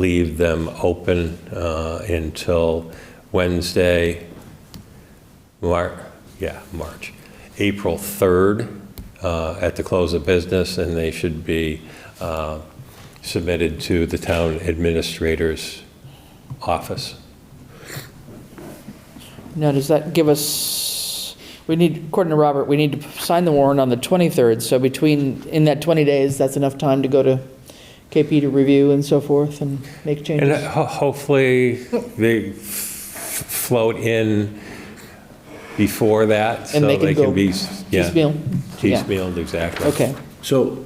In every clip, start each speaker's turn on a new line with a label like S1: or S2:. S1: leave them open uh, until Wednesday, Mar, yeah, March, April 3rd uh, at the close of business, and they should be uh, submitted to the town administrator's office.
S2: Now, does that give us, we need, according to Robert, we need to sign the warrant on the 23rd, so between, in that 20 days, that's enough time to go to KP to review and so forth and make
S1: And uh,
S2: changes?
S1: ho- hopefully, they f- float in before that, so
S2: And they can
S1: they
S2: go
S1: can be, s- yeah.
S2: Piecemeal? Yeah.
S1: Piecemealed, exactly.
S2: Okay,
S3: So,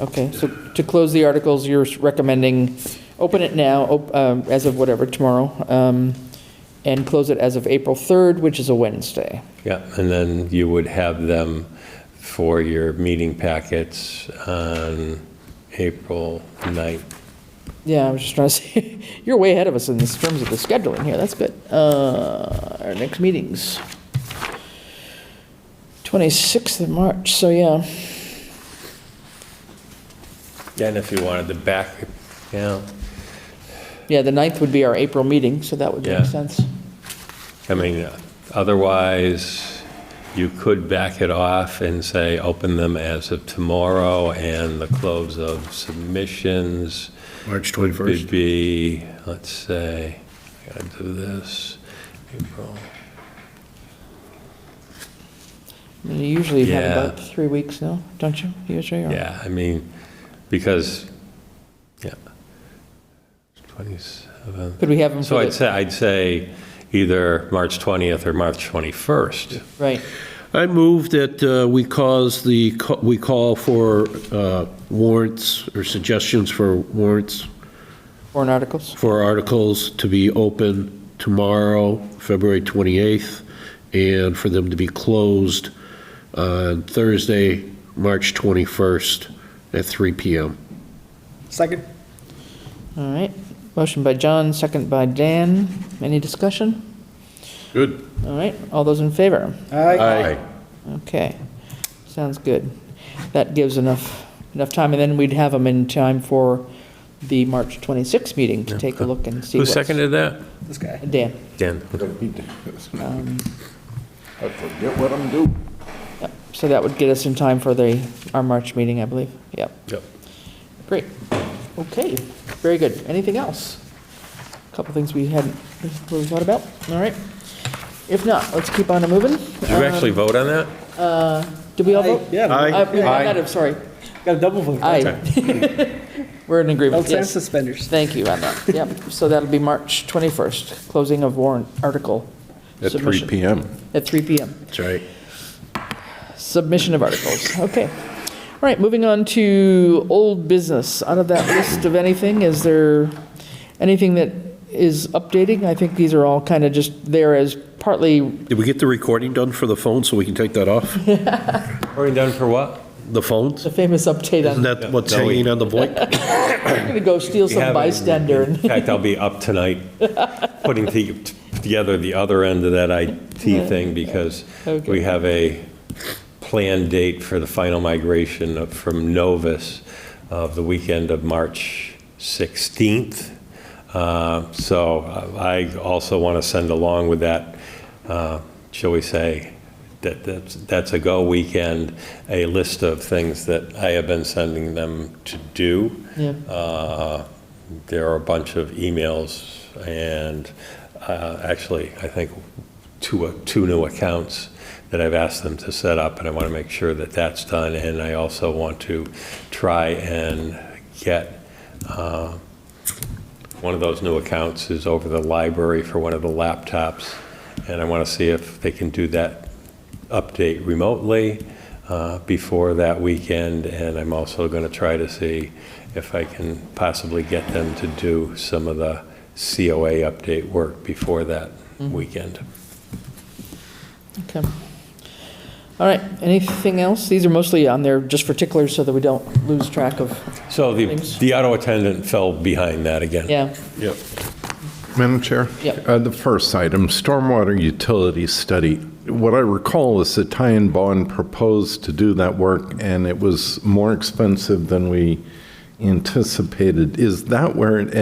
S2: okay, so to close the articles, you're recommending, open it now, op- um, as of whatever, tomorrow, um, and close it as of April 3rd, which is a Wednesday.
S1: Yeah, and then you would have them for your meeting packets on April 9th.
S2: Yeah, I was just trying to say, you're way ahead of us in this- terms of the scheduling here, that's good. Uh, Our next meeting's 26th of March, so yeah,
S1: And if you wanted to back, yeah,
S2: yeah, the 9th would be our April meeting, so that would
S1: Yeah.
S2: make sense.
S1: I mean, otherwise, you could back it off and say, open them as of tomorrow, and the close of submissions
S3: March
S1: would
S3: 21st.
S1: be, let's say, I gotta do this, April,
S2: I mean, You usually have
S1: Yeah.
S2: about three weeks now, don't you, usually? or-
S1: Yeah, I mean, because, yeah, 27.
S2: Could we have them
S1: So
S2: for
S1: I'd
S2: the,
S1: say, I'd say either March 20th or March 21st.
S2: right,
S3: I move that uh, we cause the, co- we call for uh, warrants or suggestions for warrants
S2: foreign articles?
S3: for articles to be open tomorrow, February 28th, and for them to be closed uh, on Thursday, March 21st at 3 PM.
S4: Second.
S2: All right, motion by John, second by Dan, any discussion?
S3: Good.
S2: All right, all those in favor?
S3: Aye.
S2: Okay, sounds good. That gives enough, enough time, and then we'd have them in time for the March 26th meeting to take a look and see
S1: Who
S2: what's...
S1: seconded that?
S4: This guy.
S2: Dan.
S1: Dan.
S5: I forget what I'm doing.
S2: Yep. So that would get us in time for the, our March meeting, I believe. Yep,
S1: Yep.
S2: great. Okay, very good. Anything else? A Couple things we hadn't really thought about, all right? If not, let's keep on moving.
S1: Did you actually vote on that?
S2: Did we all vote?
S4: Yeah.
S3: Aye.
S2: Uh, we got it, sorry.
S4: Got a double vote.
S2: Aye. We're in agreement,
S4: Belts and
S2: yes.
S4: suspenders.
S2: Thank you on that, yep. So that'll be March 21st, closing of warrant article.
S5: At 3
S2: submission.
S5: PM.
S2: At 3 PM.
S3: That's right.
S2: Submission of articles, okay. All right, moving on to old business. Out of that list of anything, is there anything that is updating? I think these are all kind of just there as partly,
S3: Did we get the recording done for the phone so we can take that off?
S1: Voting done for what?
S3: The phones?
S2: the famous update
S3: Isn't
S2: on,
S3: that what's hanging on the void?
S2: I'm going to go steal
S1: We
S2: some
S1: haven't-
S2: bystander and
S1: In fact, I'll be up tonight putting the- together the other end of that IT thing because we
S2: Okay.
S1: have a planned date for the final migration of- from Novus of the weekend of March 16th. Uh, So I also want to send along with that, uh, shall we say, that that's- that's a go weekend, a list of things that I have been sending them to do.
S2: Yeah.
S1: Uh, There are a bunch of emails and uh, actually, I think, two, two new accounts that I've asked them to set up, and I want to make sure that that's done. And I also want to try and get, uh, one of those new accounts is over the library for one of the laptops, and I want to see if they can do that update remotely uh, before that weekend, and I'm also going to try to see if I can possibly get them to do some of the COA update work before that weekend.
S2: Okay. All right, anything else? These are mostly on there just for ticklers so that we don't lose track of,
S1: So the,
S2: Thanks.
S1: the auto attendant fell behind that again.
S2: yeah.
S3: Yep.
S5: Madam Chair?
S2: Yep.
S5: Uh, The first item, stormwater utility study. What I recall is that Ty and Bond proposed to do that work, and it was more expensive than we anticipated. Is that where it